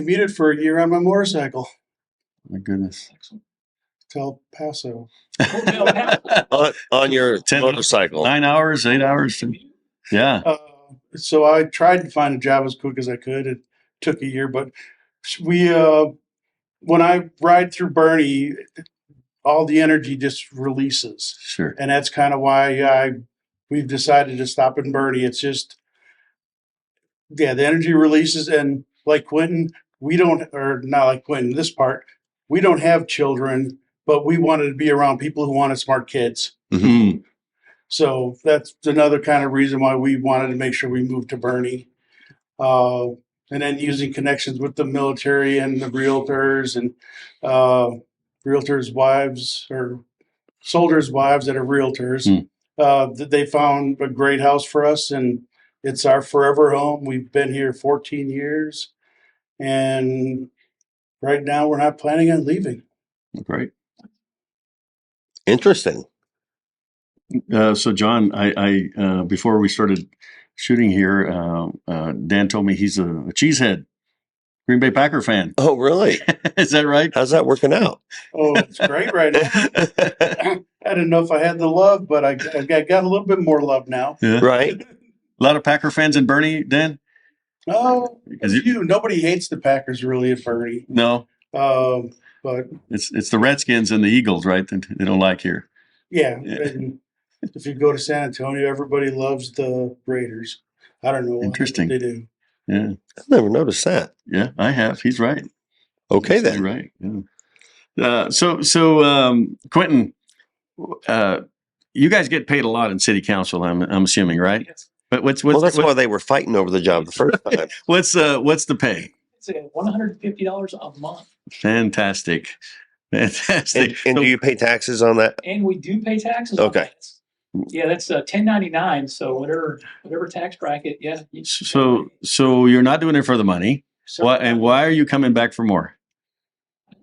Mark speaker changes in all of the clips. Speaker 1: commuted for a year on my motorcycle
Speaker 2: My goodness.
Speaker 1: to El Paso.
Speaker 3: on, on your
Speaker 2: Ten-
Speaker 3: motorcycle.
Speaker 2: Nine hours, eight hours. Yeah.
Speaker 1: Uh, so I tried to find a job as quick as I could. It took a year, but we, uh, when I ride through Bernie, all the energy just releases.
Speaker 2: Sure.
Speaker 1: and that's kind of why I we've decided to stop in Bernie. It's just yeah, the energy releases and like Quentin, we don't or not like Quentin, this part, we don't have children, but we wanted to be around people who wanted smart kids.
Speaker 2: Mhm.
Speaker 1: So that's another kind of reason why we wanted to make sure we moved to Bernie. Uh, and then using connections with the military and the realtors and uh, realtors' wives or soldiers' wives that are realtors,
Speaker 2: Hmm.
Speaker 1: uh, that they found a great house for us and it's our forever home. We've been here 14 years and right now we're not planning on leaving.
Speaker 2: Great.
Speaker 3: Interesting.
Speaker 2: Uh, so, John, I, I uh, before we started shooting here, uh, uh, Dan told me he's a, a cheesehead, Green Bay Packer fan.
Speaker 3: Oh, really?
Speaker 2: Is that right?
Speaker 3: How's that working out?
Speaker 1: Oh, it's great right now. I didn't know if I had the love, but I, I got- got a little bit more love now.
Speaker 2: Yeah.
Speaker 3: right?
Speaker 2: A lot of Packer fans in Bernie, Dan?
Speaker 1: Oh,
Speaker 2: Is it-
Speaker 1: you. Nobody hates the Packers really at Bernie.
Speaker 2: No,
Speaker 1: Um, but
Speaker 2: it's it's the Redskins and the Eagles, right? That they don't like here.
Speaker 1: yeah,
Speaker 2: Yeah.
Speaker 1: and if you go to San Antonio, everybody loves the Raiders. I don't know. why, but
Speaker 2: Interesting.
Speaker 1: They do.
Speaker 2: Yeah,
Speaker 3: I've never noticed that.
Speaker 2: yeah, I have. He's right.
Speaker 3: Okay,
Speaker 2: You're
Speaker 3: then.
Speaker 2: right. Yeah. Uh, so, so um, Quentin, uh, you guys get paid a lot in city council. I'm, I'm assuming, right?
Speaker 4: Yes.
Speaker 2: But what's what's
Speaker 3: Well, that's
Speaker 2: what-
Speaker 3: why they were fighting over the job the first time.
Speaker 2: what's uh, what's the pay?
Speaker 4: It's a one hundred and fifty dollars a month,
Speaker 2: Fantastic,
Speaker 3: And,
Speaker 2: fantastic.
Speaker 3: and do you pay taxes on that?
Speaker 4: and we do pay taxes. on
Speaker 3: Okay.
Speaker 4: that. Yeah, that's uh, ten ninety nine. So whatever, whatever tax bracket, yeah. you-
Speaker 2: so, so you're not doing it for the money.
Speaker 4: So-
Speaker 2: Why and why are you coming back for more?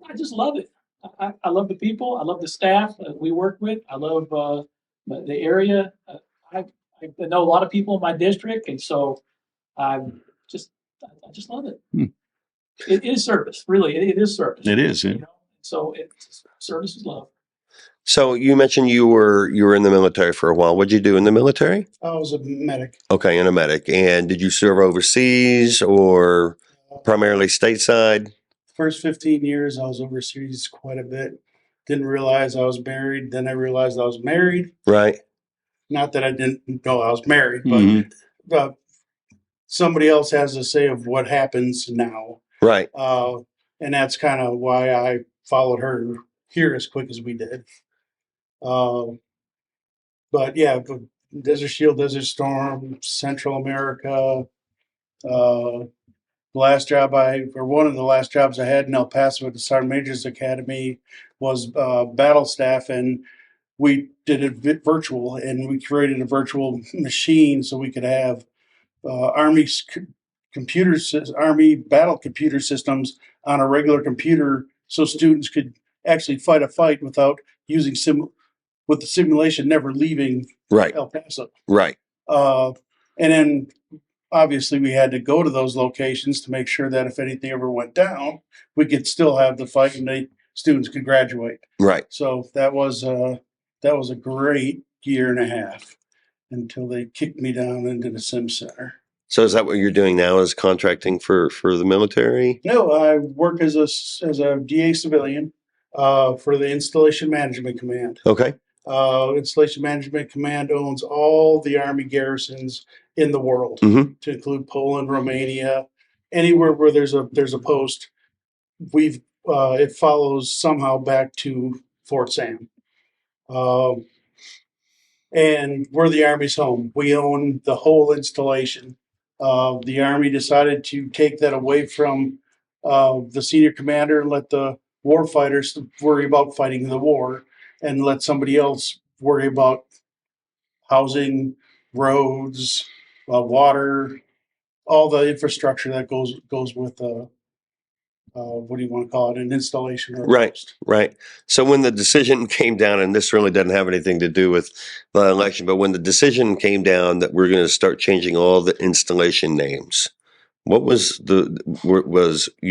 Speaker 4: I just love it. I, I- I love the people. I love the staff that we work with. I love uh, the the area. Uh, I, I know a lot of people in my district, and so I'm just, I I just love it.
Speaker 2: Hmm.
Speaker 4: It is service, really. It, it is service.
Speaker 2: It is. yeah.
Speaker 4: You know? So it's service is love.
Speaker 3: So you mentioned you were you were in the military for a while. What'd you do in the military?
Speaker 1: I was a medic.
Speaker 3: Okay, in a medic. And did you serve overseas or primarily stateside?
Speaker 1: First 15 years, I was overseas quite a bit. Didn't realize I was married. Then I realized I was married.
Speaker 3: Right.
Speaker 1: Not that I didn't know I was married, but
Speaker 2: Mhm.
Speaker 1: uh, somebody else has to say of what happens now.
Speaker 3: Right.
Speaker 1: uh, and that's kind of why I followed her here as quick as we did. Um, but yeah, but Desert Shield, Desert Storm, Central America. Uh, the last job I, or one of the last jobs I had in El Paso at the Sergeant Major's Academy was uh, battle staff, and we did it vi- virtual, and we created a virtual machine so we could have uh, Army sc- computer sys- army battle computer systems on a regular computer so students could actually fight a fight without using sim with the simulation never leaving
Speaker 3: Right.
Speaker 1: El Paso.
Speaker 3: Right.
Speaker 1: Uh, and then obviously we had to go to those locations to make sure that if anything ever went down, we could still have the fight and the students could graduate.
Speaker 3: Right.
Speaker 1: So that was uh, that was a great year and a half until they kicked me down into the sim center.
Speaker 3: So is that what you're doing now is contracting for for the military?
Speaker 1: No, I work as a s- as a DA civilian uh, for the Installation Management Command.
Speaker 3: Okay.
Speaker 1: Uh, Installation Management Command owns all the Army garrisons in the world,
Speaker 3: Mhm.
Speaker 1: to include Poland, Romania, anywhere where there's a there's a post. We've uh, it follows somehow back to Fort Sam, um, and we're the Army's home. We own the whole installation. Uh, the Army decided to take that away from uh, the senior commander and let the war fighters worry about fighting the war and let somebody else worry about housing, roads, uh, water, all the infrastructure that goes goes with uh, uh, what do you want to call it, an installation or a
Speaker 3: Right.
Speaker 1: post.
Speaker 3: Right. So when the decision came down, and this really doesn't have anything to do with the election, but when the decision came down that we're going to start changing all the installation names, what was the were- was